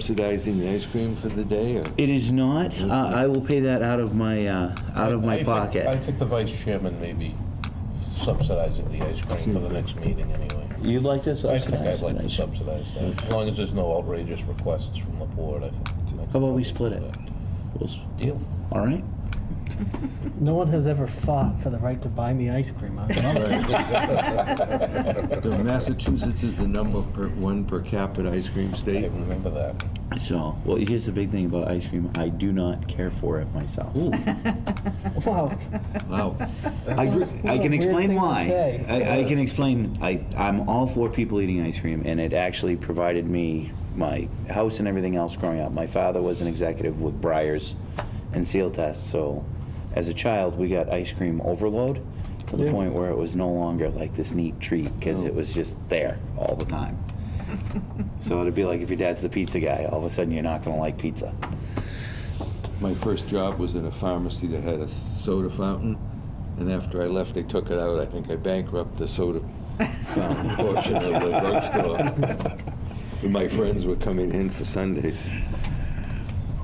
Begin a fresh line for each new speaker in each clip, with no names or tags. subsidizing the ice cream for the day, or?
It is not. Uh, I will pay that out of my, uh, out of
I
my
think- I
pocket.
think the vice chairman may be subsidizing the ice cream for the next meeting anyway.
You'd like to
I think I'd
subsidize
like to
it?
subsidize that, as long as there's no outrageous requests from the board, I think.
How about we split it? We'll s-
Deal.
All right?
No one has ever fought for the right to buy me ice cream. huh?
So Massachusetts is the number per, one per capita ice cream
I
state.
remember that.
So, well, here's the big thing about ice cream. I do not care for it myself.
Wow.
Wow.
I, gr- I
a
can
weird thing
explain
to
why.
say.
I, I can explain. I, I'm all for people eating ice cream, and it actually provided me my house and everything else growing up. My father was an executive with Briars and Seal Test, so as a child, we got ice cream overload to the
Yeah.
point where it was no longer like this neat treat because it was just there all the time. so it'd be like if your dad's the pizza guy, all of a sudden you're not going to like pizza.
My first job was in a pharmacy that had a soda fountain, and after I left, they took it out. I think I bankrupted the soda fountain portion of the drugstore. And my friends were coming in for Sundays.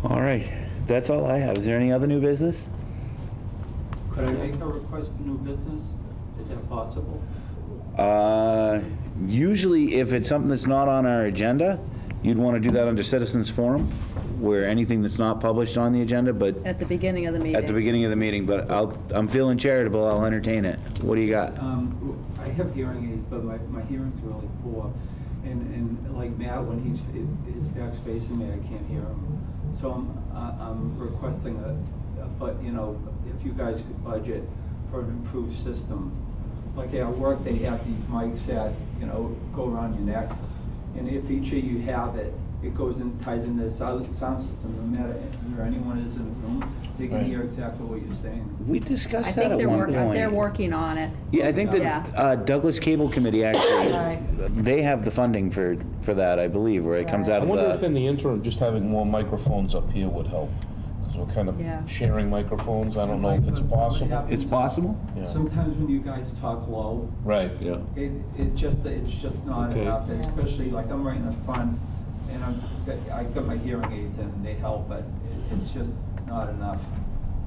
All right, that's all I have. Is there any other new business?
Could I make a request for new business? Is that possible?
Uh, Usually, if it's something that's not on our agenda, you'd want to do that under citizens forum, where anything that's not published on the agenda, but
At the beginning of the meeting.
at the beginning of the meeting, but I'll, I'm feeling charitable, I'll entertain it. What do you got?
Um, I have hearing aids, but my, my hearing's really poor. And, and like Matt, when he's, his back's facing me, I can't hear him. So I'm, I- I'm requesting a, a- but, you know, if you guys could budget for an improved system. Like at work, they have these mics that, you know, go around your neck. And if each of you have it, it goes and ties into the sound sound system, no matter where anyone is in the room, they can
Right.
hear exactly what you're saying.
We
I
discussed that
think
at
they're
one
working, they're
point.
working on it.
Yeah, I think the
Yeah.
uh, Douglas Cable Committee actually,
Right.
they have the funding for, for that, I believe, where it comes
Right.
out
I
of
wonder if
the,
in the interim, just having more microphones up here would help, because we're kind
Yeah.
of sharing microphones, I don't know if it's possible.
it's possible?
Yeah.
Sometimes when you guys talk low,
Right,
Yeah.
it, it just, it's just not
Okay.
enough,
Yeah.
especially like I'm right in the front and I'm, I got my hearing aids in, they help, but it- it's just not enough,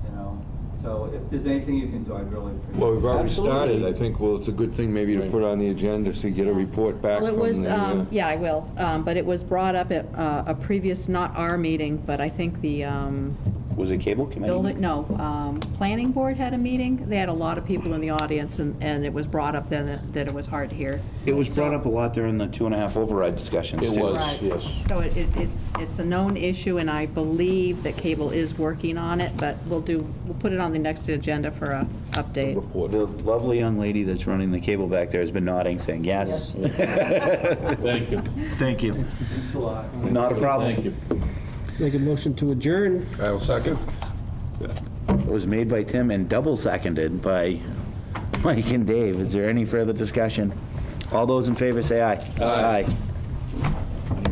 you know? So if there's anything you can do, I'd really appreciate it.
Well, we've already
Absolutely.
started. I think, well, it's a good thing maybe to put on the agenda, so you get a report back
Well, it
from
was,
the, uh,
um, yeah, I will, um, but it was brought up at uh, a previous, not our meeting, but I think the um,
Was it Cable Committee?
building, no, um, planning board had a meeting. They had a lot of people in the audience, and and it was brought up then that- that it was hard to hear.
It was brought
So-
up a lot during the two and a half override discussions,
It
too.
was.
Right.
yes.
So it, it, it- it's a known issue, and I believe that cable is working on it, but we'll do, we'll put it on the next agenda for a update.
report.
The lovely young lady that's running the cable back there has been nodding, saying yes.
Thank you.
Thank you.
Thanks a lot.
Not a
Thank you.
problem.
Make a motion to adjourn.
I'll second.
It was made by Tim and double seconded by Mike and Dave. Is there any further discussion? All those in favor say aye. Aye.